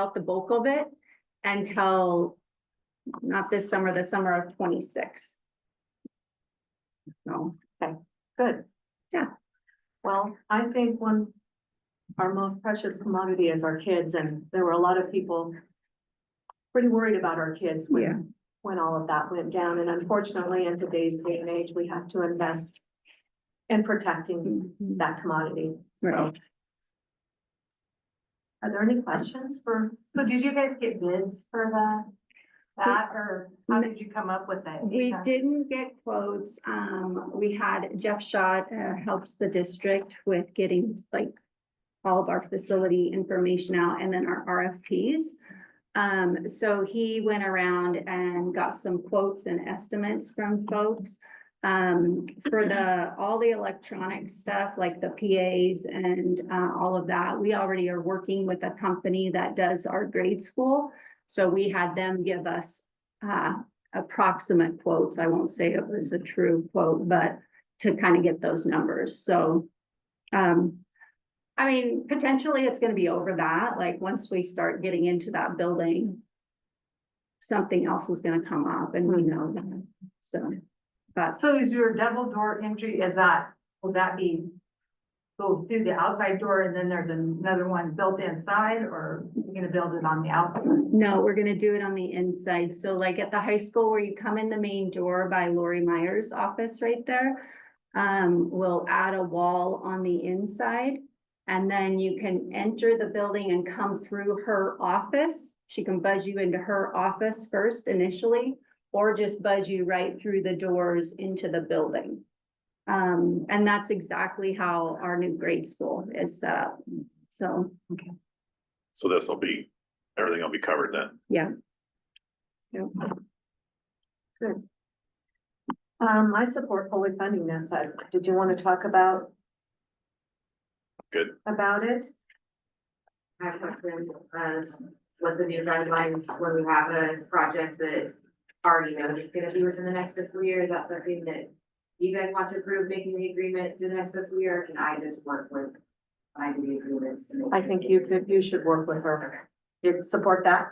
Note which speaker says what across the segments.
Speaker 1: out the bulk of it until not this summer, the summer of twenty-six. So,
Speaker 2: Good.
Speaker 1: Yeah.
Speaker 2: Well, I think one, our most precious commodity is our kids, and there were a lot of people pretty worried about our kids
Speaker 1: Yeah.
Speaker 2: when, when all of that went down, and unfortunately, in today's day and age, we have to invest in protecting
Speaker 1: mm-hmm.
Speaker 2: that commodity, so.
Speaker 1: Mm. Right.
Speaker 2: Are there any questions for,
Speaker 3: So did you guys get bids for the, that, or how did you come up with it?
Speaker 1: we didn't get quotes. Um, we had Jeff Schott, uh, helps the district with getting like all of our facility information out and then our RFPs. Um, so he went around and got some quotes and estimates from folks. Um, for the, all the electronic stuff, like the PAs and, uh, all of that, we already are working with a company that does our grade school. So we had them give us, uh, approximate quotes. I won't say it was a true quote, but to kind of get those numbers, so. Um, I mean, potentially it's gonna be over that, like, once we start getting into that building. Something else is gonna come up and we know that, so, but
Speaker 3: So is your double door entry, is that, will that be go through the outside door and then there's another one built inside, or you're gonna build it on the outside?
Speaker 1: No, we're gonna do it on the inside. So like at the high school where you come in the main door by Lori Meyer's office right there. Um, we'll add a wall on the inside. And then you can enter the building and come through her office. She can buzz you into her office first initially. Or just buzz you right through the doors into the building. Um, and that's exactly how our new grade school is set up. So,
Speaker 4: So this will be, everything will be covered then.
Speaker 2: um, I support fully funding this, I, did you want to talk about?
Speaker 4: Good.
Speaker 2: About it?
Speaker 5: my question as what the new guidelines, when we have a project that already knows it's gonna be within the next fiscal year, is that something that you guys want to approve making the agreement through the next fiscal year, or can I just work with, I do the agreements to make?
Speaker 2: I think you could, you should work with her, you support that?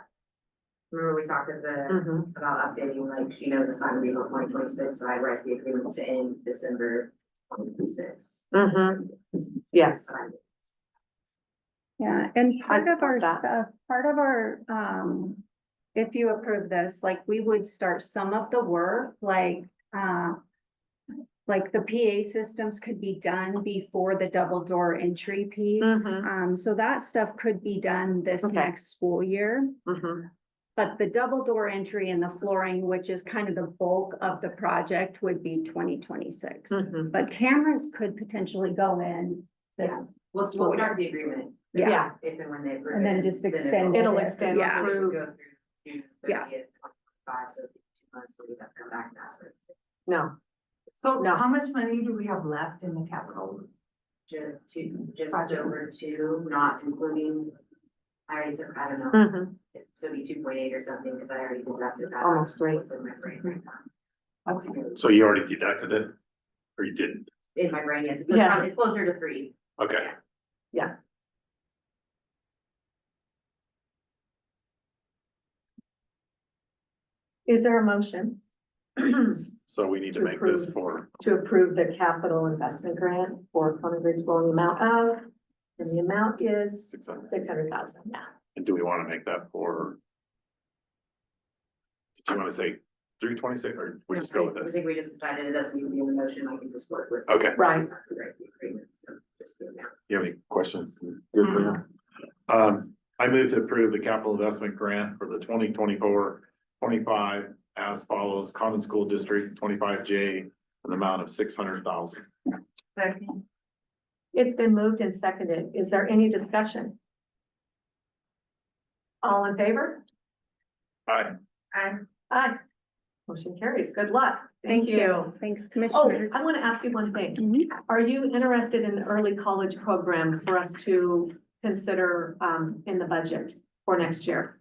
Speaker 5: Remember, we talked at the,
Speaker 2: Mm-hmm.
Speaker 5: about updating, like, she knows it's not gonna be until twenty twenty-six, so I write the agreement to end December twenty twenty-six.
Speaker 2: Mm-hmm, yes.
Speaker 1: Yeah, and
Speaker 2: I
Speaker 1: part of our
Speaker 2: support that.
Speaker 1: stuff, part of our, um, if you approve this, like, we would start some of the work, like, uh. Like the PA systems could be done before the double door entry piece,
Speaker 2: Mhm.
Speaker 1: um, so that stuff could be done this
Speaker 2: Okay.
Speaker 1: next school year.
Speaker 2: Mhm.
Speaker 1: But the double door entry and the flooring, which is kind of the bulk of the project, would be twenty twenty-six.
Speaker 2: Mhm.
Speaker 1: But cameras could potentially go in
Speaker 5: Yeah.
Speaker 1: this,
Speaker 5: We'll, we'll start the agreement
Speaker 1: yeah.
Speaker 2: Yeah,
Speaker 5: if and when they approve.
Speaker 1: And then
Speaker 5: it,
Speaker 1: just
Speaker 5: it'll-
Speaker 1: extend
Speaker 2: It'll extend
Speaker 1: Yeah.
Speaker 5: We
Speaker 2: through-
Speaker 5: could go through June
Speaker 1: Yeah.
Speaker 5: 30th, 25, so it'd be two months, so we'd have to come back and ask for it.
Speaker 2: no,
Speaker 3: So
Speaker 2: No.
Speaker 3: how much money do we have left in the capital?
Speaker 5: Ju- two- Just over two, not including, I already took, I don't know,
Speaker 2: Mhm.
Speaker 5: so it'd be two point eight or something, because I already deducted that.
Speaker 2: Almost three.
Speaker 5: It's In my brain right now.
Speaker 4: So you already deducted it? Or you didn't?
Speaker 5: In my brain, yes, it's
Speaker 2: Yeah.
Speaker 5: around- it's closer to three.
Speaker 4: Okay,
Speaker 2: is there a motion? To
Speaker 4: so we need to make this for,
Speaker 2: approve the capital investment grant for Common Grade School in the amount of, and the amount is
Speaker 4: six hundred.
Speaker 2: six hundred thousand, yeah.
Speaker 4: and do we want to make that for? Did you want to say three twenty-six, or we just go with
Speaker 5: I
Speaker 4: this?
Speaker 5: think we just decided it doesn't need to be in the motion, I can just work with.
Speaker 4: Okay,
Speaker 2: Right.
Speaker 5: Right, the agreement, so just the amount.
Speaker 4: you have any questions? Good for now. Um, I move to approve the capital investment grant for the 2024-25 as follows, Common School District twenty-five J, an amount of six hundred thousand.
Speaker 3: Second.
Speaker 2: It's been moved and seconded. Is there any discussion? All in favor?
Speaker 4: Aye.
Speaker 2: Aye. Motion carries. Good luck.
Speaker 1: Thanks,
Speaker 2: Oh,
Speaker 1: Commissioners.
Speaker 2: I want to ask you one thing.
Speaker 1: Mhm.
Speaker 2: Are you interested in the early college program for us to consider um in the budget for next year?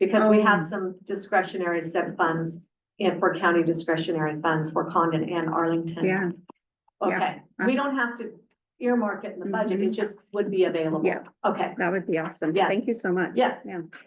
Speaker 2: Because we have
Speaker 1: Um.
Speaker 2: some discretionary set funds and for county discretionary funds for Condon and Arlington.
Speaker 1: Yeah, Mm-hmm. yeah.
Speaker 2: Okay, we don't have to, earmark it in the budget, it just would be available.
Speaker 1: Yeah.
Speaker 2: Okay,
Speaker 1: That would be awesome.
Speaker 2: Yes.
Speaker 1: Thank you so much.
Speaker 2: yes.
Speaker 1: Yeah.